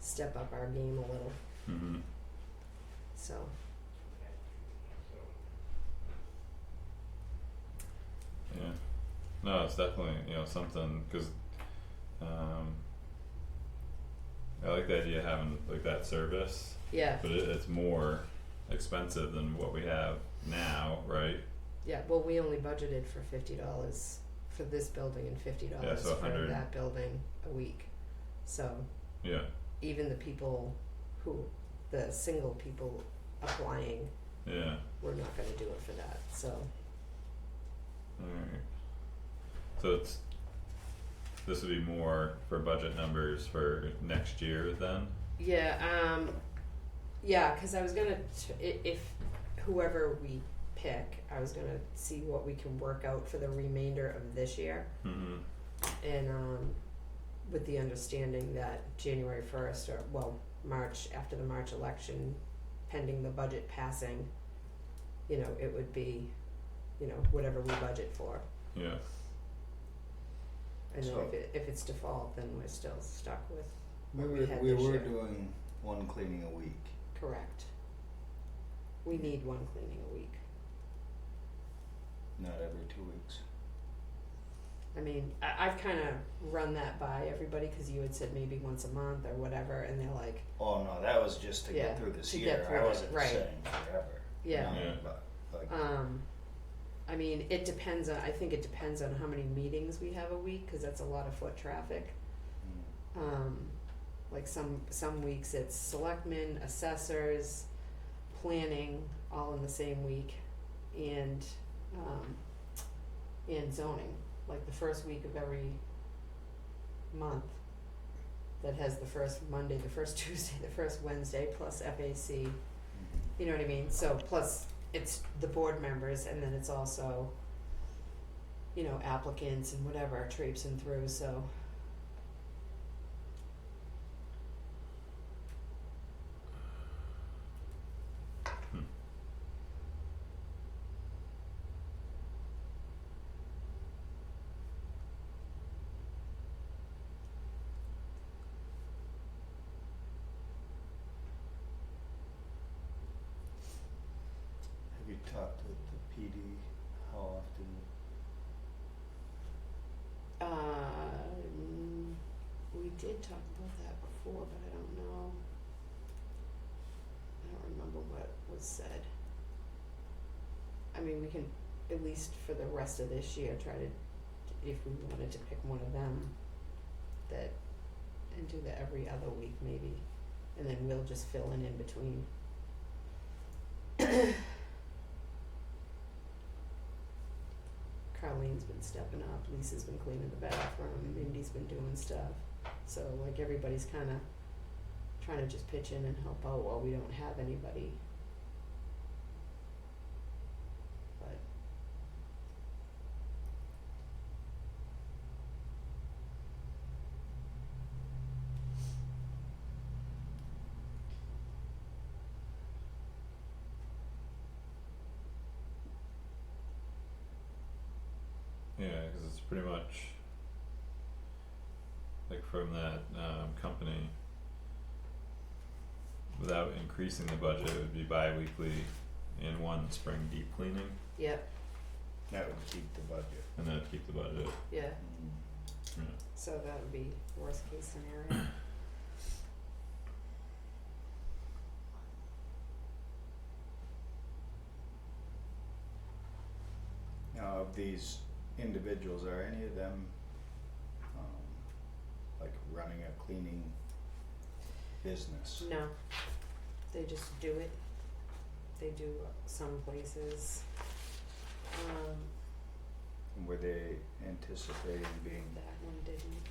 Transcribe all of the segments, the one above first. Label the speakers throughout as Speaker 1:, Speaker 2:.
Speaker 1: step up our game a little.
Speaker 2: Mm-hmm.
Speaker 1: So
Speaker 2: Yeah. No, it's definitely you know something because, um, I like the idea of having like that service,
Speaker 1: yeah,
Speaker 2: but it, it's more expensive than what we have now, right?
Speaker 1: yeah. Well, we only budgeted for fifty dollars for this building and fifty dollars
Speaker 2: Yeah, so
Speaker 1: for
Speaker 2: 100.
Speaker 1: that building a week. So
Speaker 2: Yeah.
Speaker 1: even the people who, the single people applying,
Speaker 2: Yeah.
Speaker 1: we're not going to do it for that. So
Speaker 2: Alright. So it's this would be more for budget numbers for next year then.
Speaker 1: Yeah, um, yeah, cause I was gonna, t- i- if whoever we pick, I was gonna see what we can work out for the remainder of this year.
Speaker 2: Mm-hmm.
Speaker 1: And, um, with the understanding that January first or, well, March, after the March election, pending the budget passing, you know, it would be, you know, whatever we budget for.
Speaker 2: Yeah.
Speaker 1: And then
Speaker 3: So-
Speaker 1: if it, if it's default, then we're still stuck with,
Speaker 3: We
Speaker 1: what we
Speaker 3: were,
Speaker 1: had
Speaker 3: we
Speaker 1: this
Speaker 3: were
Speaker 1: year.
Speaker 3: doing one cleaning a week.
Speaker 1: correct. We need one cleaning a week.
Speaker 3: Not every two weeks.
Speaker 1: I mean, I, I've kind of run that by everybody because you had said maybe once a month or whatever, and they're like,
Speaker 3: Oh no, that was just to
Speaker 1: Yeah,
Speaker 3: get through this
Speaker 1: to
Speaker 3: year.
Speaker 1: get through it,
Speaker 3: I wasn't
Speaker 1: right.
Speaker 3: saying forever.
Speaker 1: yeah.
Speaker 3: No,
Speaker 2: Yeah.
Speaker 3: But like
Speaker 1: Um, I mean, it depends on. I think it depends on how many meetings we have a week because that's a lot of foot traffic.
Speaker 3: mm,
Speaker 1: Um, like some some weeks it's selectmen, assessors, planning, all in the same week, and um, and zoning. Like the first week of every month. That has the first Monday, the first Tuesday, the first Wednesday, plus FAC.
Speaker 3: mhm.
Speaker 1: You know what I mean? So plus it's the board members and then it's also you know, applicants and whatever traipsing through, so
Speaker 2: Hmm.
Speaker 3: have you talked with the PD how often?
Speaker 1: uh we did talk about that before, but I don't know. I don't remember what was said. I mean, we can at least for the rest of this year try to if we wanted to pick one of them that and do that every other week maybe. And then we'll just fill in in between. Carlene's been stepping up, Lisa's been cleaning the bathroom, Mindy's been doing stuff. So like everybody's kinda trying to just pitch in and help out while we don't have anybody. But
Speaker 2: Yeah, because it's pretty much like from that um, company. Without increasing the budget, it would be bi-weekly and one spring deep cleaning,
Speaker 1: yep,
Speaker 3: That would keep the budget.
Speaker 2: and that'd keep the budget.
Speaker 1: yeah,
Speaker 3: Mm.
Speaker 1: so that would be worst case scenario.
Speaker 3: Now, of these individuals, are any of them um, like running a cleaning business?
Speaker 1: No, they just do it. They do some places. Um,
Speaker 3: Were they anticipating being
Speaker 1: that one didn't.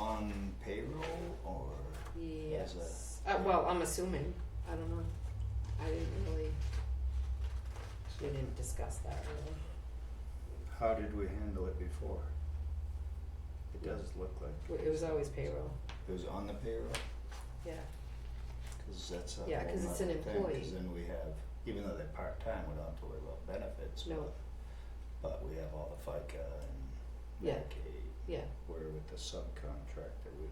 Speaker 3: on payroll or? As a-
Speaker 1: Yes. Uh, well, I'm assuming. I don't know. I didn't really. We didn't discuss that really.
Speaker 3: How did we handle it before? It
Speaker 1: Yeah.
Speaker 3: does look like
Speaker 1: W- It was always payroll.
Speaker 3: it was on the payroll,
Speaker 1: Yeah.
Speaker 3: cause that's a whole
Speaker 1: Yeah, 'cause it's an
Speaker 3: nother thing, 'cause
Speaker 1: employee.
Speaker 3: then we have, even though they're part-time, we don't have to worry about benefits,
Speaker 1: No.
Speaker 3: but, but we have all the FICA and
Speaker 1: Yeah.
Speaker 3: Medicaid.
Speaker 1: Yeah.
Speaker 3: Where with the subcontractor, we